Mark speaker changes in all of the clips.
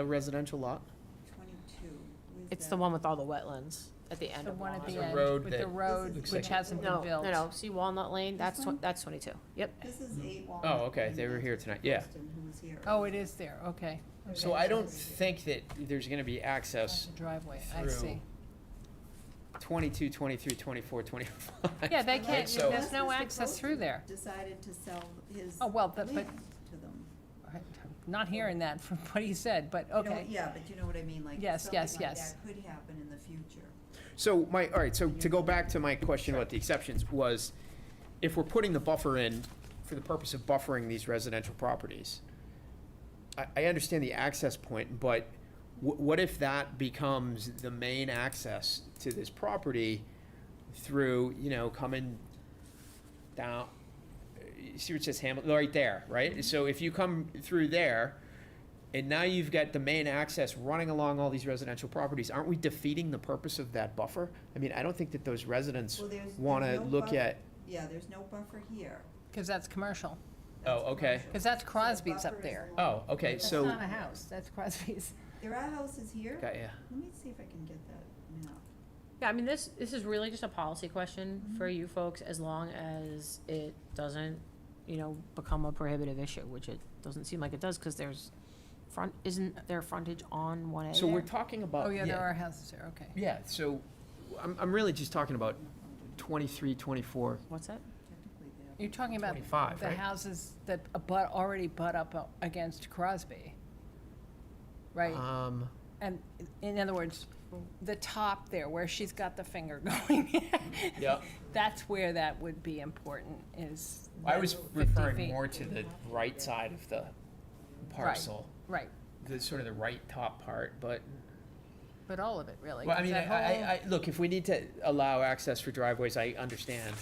Speaker 1: a residential lot?
Speaker 2: Twenty-two. Where's
Speaker 3: It's
Speaker 2: that?
Speaker 3: the one with all the wetlands at the end
Speaker 4: The
Speaker 3: of
Speaker 4: one
Speaker 3: Walnut.
Speaker 4: at the
Speaker 1: There's a
Speaker 4: end,
Speaker 1: road
Speaker 4: with the
Speaker 1: that
Speaker 4: road,
Speaker 2: looks
Speaker 4: which
Speaker 2: like-
Speaker 4: hasn't been
Speaker 3: No,
Speaker 4: built.
Speaker 3: no, no, see Walnut Lane, that's,
Speaker 2: This
Speaker 3: tw-
Speaker 2: one?
Speaker 3: that's twenty-two, yep.
Speaker 2: This is eight Walnut.
Speaker 1: Oh, okay,
Speaker 2: Lane.
Speaker 1: they were
Speaker 2: That's
Speaker 1: here tonight, yeah.
Speaker 2: Preston, who was here
Speaker 4: Oh,
Speaker 2: earlier.
Speaker 4: it is there, okay.
Speaker 1: So I don't think that there's gonna be access
Speaker 4: That's the driveway, I
Speaker 1: through.
Speaker 4: see.
Speaker 1: 22, 23, 24, 25.
Speaker 4: Yeah, they
Speaker 2: Unless-
Speaker 4: can't,
Speaker 1: So-
Speaker 4: there's no
Speaker 2: unless Mr.
Speaker 4: access
Speaker 2: Croce
Speaker 4: through there.
Speaker 2: Decided to sell his
Speaker 4: Oh, well,
Speaker 2: land
Speaker 4: but-
Speaker 2: to
Speaker 4: but-
Speaker 2: them.
Speaker 4: I'm Not hearing that from what he said, but
Speaker 2: You know what-
Speaker 4: okay.
Speaker 2: Yeah, but you know what I mean, like.
Speaker 4: Yes, yes,
Speaker 2: something like
Speaker 4: yes.
Speaker 2: That could happen in the future.
Speaker 1: So my, all right, so to go back to my question about the exceptions was, if we're putting the buffer in for the purpose of buffering these residential properties, I, I understand the access point, but wh- what if that becomes the main access to this property through, you know, coming down, you see what it says Hamilton, right there, right? So if you come through there, and now you've got the main access running along all these residential properties, aren't we defeating the purpose of that buffer? I mean, I don't think that those residents
Speaker 2: Well, there's-
Speaker 1: wanna
Speaker 2: there's no
Speaker 1: look
Speaker 2: buffer-
Speaker 1: at,
Speaker 2: Yeah, there's no buffer here.
Speaker 4: Because that's commercial,
Speaker 2: That's
Speaker 1: Oh, okay.
Speaker 2: commercial.
Speaker 4: because that's
Speaker 2: So the
Speaker 4: Crosby's
Speaker 2: buffer
Speaker 4: up
Speaker 2: is
Speaker 4: there.
Speaker 1: oh,
Speaker 2: along-
Speaker 1: okay,
Speaker 2: That's
Speaker 1: so.
Speaker 4: That's not a house, that's Crosby's.
Speaker 2: There are houses here.
Speaker 1: Got ya.
Speaker 2: Let me see if I can get that map.
Speaker 3: Yeah, I mean, this, this is really just a policy question for you folks, as long as it doesn't, you know, become a prohibitive issue, which it doesn't seem like it does, because there's front, isn't there frontage on one A
Speaker 1: So we're
Speaker 3: there?
Speaker 1: talking about.
Speaker 4: Oh, yeah, there are houses there, okay.
Speaker 1: Yeah, so I'm, I'm really just talking about 23, 24.
Speaker 3: What's that?
Speaker 2: Technically, they have-
Speaker 4: You're talking about
Speaker 1: 25,
Speaker 4: the
Speaker 1: right?
Speaker 4: houses that abut, already butt up uh, against Crosby, right?
Speaker 1: Um,
Speaker 4: And in other words, the top there, where she's got the finger going.
Speaker 1: Yeah.
Speaker 4: That's where that would be important, is.
Speaker 1: I
Speaker 4: that
Speaker 1: was
Speaker 4: 50
Speaker 1: referring
Speaker 4: feet.
Speaker 1: more to the right side of the parcel,
Speaker 4: Right,
Speaker 1: the sort of the right top part, but.
Speaker 4: but all of it, really.
Speaker 1: Well, I
Speaker 4: 'cause
Speaker 1: mean, I,
Speaker 4: that
Speaker 1: I,
Speaker 4: whole-
Speaker 1: I, look, if we need to allow access for driveways, I understand.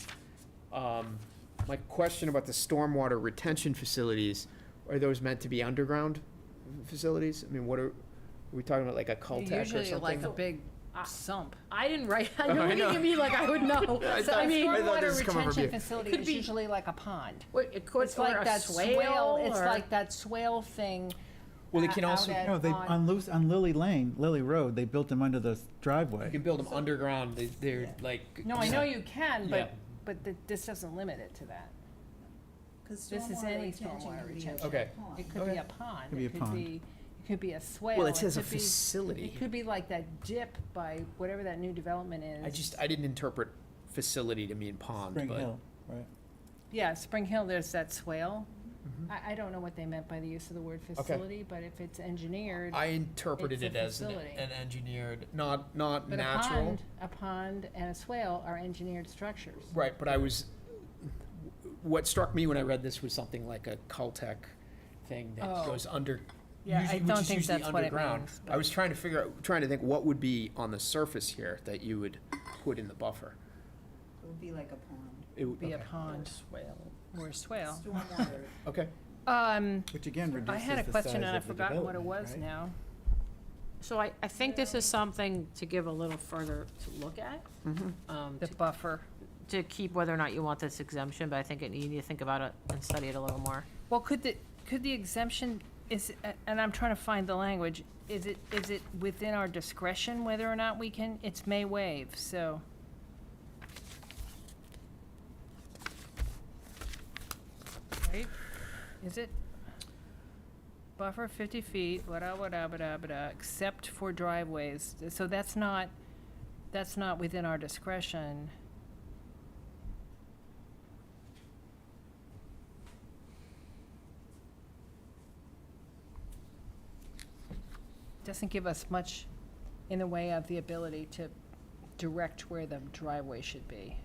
Speaker 1: Um, my question about the stormwater retention facilities, are those meant to be underground facilities? I mean, what are, are we talking about like a cul de or something?
Speaker 4: Usually like a big sump.
Speaker 3: I didn't write, I
Speaker 1: I
Speaker 3: know, you
Speaker 1: know.
Speaker 3: give me like, I would know.
Speaker 1: I
Speaker 3: So,
Speaker 1: thought-
Speaker 3: I mean,
Speaker 1: I thought this
Speaker 4: Water
Speaker 1: was coming from
Speaker 4: retention
Speaker 1: you.
Speaker 4: facility
Speaker 3: Could
Speaker 4: is
Speaker 3: be-
Speaker 4: usually like a pond.
Speaker 3: what, it could,
Speaker 4: It's
Speaker 3: or
Speaker 4: like
Speaker 3: a
Speaker 4: that swale,
Speaker 3: swale,
Speaker 4: it's
Speaker 3: or-
Speaker 4: like that swale thing.
Speaker 1: Well, it
Speaker 4: o-
Speaker 1: can
Speaker 4: out
Speaker 1: also-
Speaker 4: at-
Speaker 5: No, they,
Speaker 4: on-
Speaker 5: on Luce, on Lily Lane, Lily Road, they built them under the
Speaker 1: You
Speaker 5: driveway.
Speaker 1: can build them underground, they, they're like.
Speaker 4: No, I know you can,
Speaker 1: Yeah.
Speaker 4: but, but th- this doesn't limit it to that.
Speaker 2: 'cause
Speaker 4: This is
Speaker 2: stormwater
Speaker 4: any
Speaker 2: retention
Speaker 4: stormwater
Speaker 2: would be a
Speaker 4: retention.
Speaker 1: Okay.
Speaker 2: pond.
Speaker 4: It could be a pond,
Speaker 5: Could be a
Speaker 4: it could
Speaker 5: pond.
Speaker 4: be, it could be a swale.
Speaker 1: Well, it says a
Speaker 4: could be-
Speaker 1: facility.
Speaker 4: It could be like that dip by whatever that new development is.
Speaker 1: I just, I didn't interpret facility to mean pond,
Speaker 5: Spring
Speaker 1: but-
Speaker 5: Hill, right.
Speaker 4: Yeah, Spring Hill, there's that swale. I, I don't know what they meant by the use of the word facility, but if it's engineered,
Speaker 1: I interpreted
Speaker 4: It's
Speaker 1: it
Speaker 4: a
Speaker 1: as an,
Speaker 4: facility.
Speaker 1: an engineered, not, not
Speaker 4: but a
Speaker 1: natural.
Speaker 4: pond, a pond and a swale are engineered structures.
Speaker 1: Right, but I was, what struck me when I read this was something like a Caltech thing that
Speaker 4: Oh.
Speaker 1: goes under.
Speaker 4: Yeah, I
Speaker 1: usually- which
Speaker 4: don't
Speaker 1: is
Speaker 4: think
Speaker 1: usually
Speaker 4: that's what it
Speaker 1: underground.
Speaker 4: means,
Speaker 1: I was trying to figure out, trying to think what would be on the surface here that you would put in the buffer.
Speaker 2: It would be like a pond.
Speaker 1: It would
Speaker 4: Be a
Speaker 1: okay.
Speaker 4: pond or a swale.
Speaker 2: Stormwater
Speaker 1: Okay,
Speaker 4: Um,
Speaker 5: Which again
Speaker 4: I
Speaker 5: reduces
Speaker 4: had a
Speaker 5: the
Speaker 4: question
Speaker 5: size
Speaker 4: and I've
Speaker 5: of the
Speaker 4: forgotten what it
Speaker 5: development,
Speaker 4: was
Speaker 5: right?
Speaker 4: now.
Speaker 3: So I, I think this is something to give a little further to look at.
Speaker 1: Mm-hmm.
Speaker 3: Um,
Speaker 4: The
Speaker 3: to-
Speaker 4: buffer.
Speaker 3: to keep whether or not you want this exemption, but I think it- you need to think about it and study it a little more.
Speaker 4: Well, could the, could the exemption, is, a- and I'm trying to find the language, is it, is it within our discretion whether or not we can, it's may waive, so. Right, is it? Buffer fifty feet, wada, wada, wada, wada, except for driveways, so that's not, that's not within our discretion. doesn't give us much in the way of the ability to direct where the driveway should be.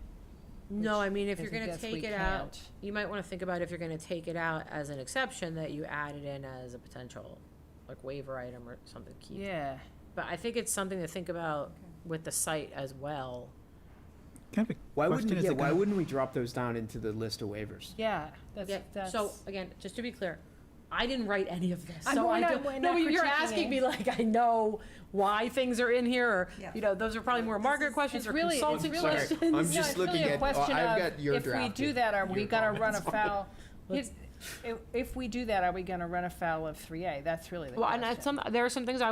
Speaker 3: No, I mean, if you're
Speaker 4: Because I
Speaker 3: gonna
Speaker 4: guess we
Speaker 3: take it out,
Speaker 4: can't.
Speaker 3: you might wanna think about if you're gonna take it out as an exception, that you add it in as a potential, like waiver item or something, to keep.
Speaker 4: Yeah,
Speaker 3: But I think it's something to think about with the site as well.
Speaker 5: Can I have a
Speaker 1: why wouldn't,
Speaker 5: question?
Speaker 1: we-
Speaker 5: Is
Speaker 1: yeah,
Speaker 5: it
Speaker 1: why
Speaker 5: gonna-
Speaker 1: wouldn't we drop those down into the list of waivers?
Speaker 4: yeah, that's,
Speaker 3: Yeah,
Speaker 4: that's.
Speaker 3: so, again, just to be clear, I didn't write any of this,
Speaker 4: I
Speaker 3: so
Speaker 4: know,
Speaker 3: I
Speaker 4: I know,
Speaker 3: don't,
Speaker 4: we're
Speaker 3: no,
Speaker 4: not
Speaker 3: but you're
Speaker 4: critiquing
Speaker 3: asking
Speaker 4: it.
Speaker 3: me like, I know why things are in here, or,
Speaker 2: Yeah.
Speaker 3: you know, those are probably more Margaret questions
Speaker 4: it's
Speaker 3: or
Speaker 4: really- it's
Speaker 3: consulting
Speaker 4: really-
Speaker 3: questions.
Speaker 1: I'm
Speaker 4: No,
Speaker 1: just
Speaker 4: it's really
Speaker 1: looking
Speaker 4: a
Speaker 1: at- oh,
Speaker 4: question
Speaker 1: I've
Speaker 4: of
Speaker 1: got your
Speaker 4: If we do
Speaker 1: drafted-
Speaker 4: that, are
Speaker 1: your
Speaker 4: we gonna run
Speaker 1: comments on it.
Speaker 4: afoul?
Speaker 3: Let's-
Speaker 4: Here's- If, if we do that, are we gonna run afoul of three A? That's really the
Speaker 3: Well, and
Speaker 4: question.
Speaker 3: I- some, there are some things I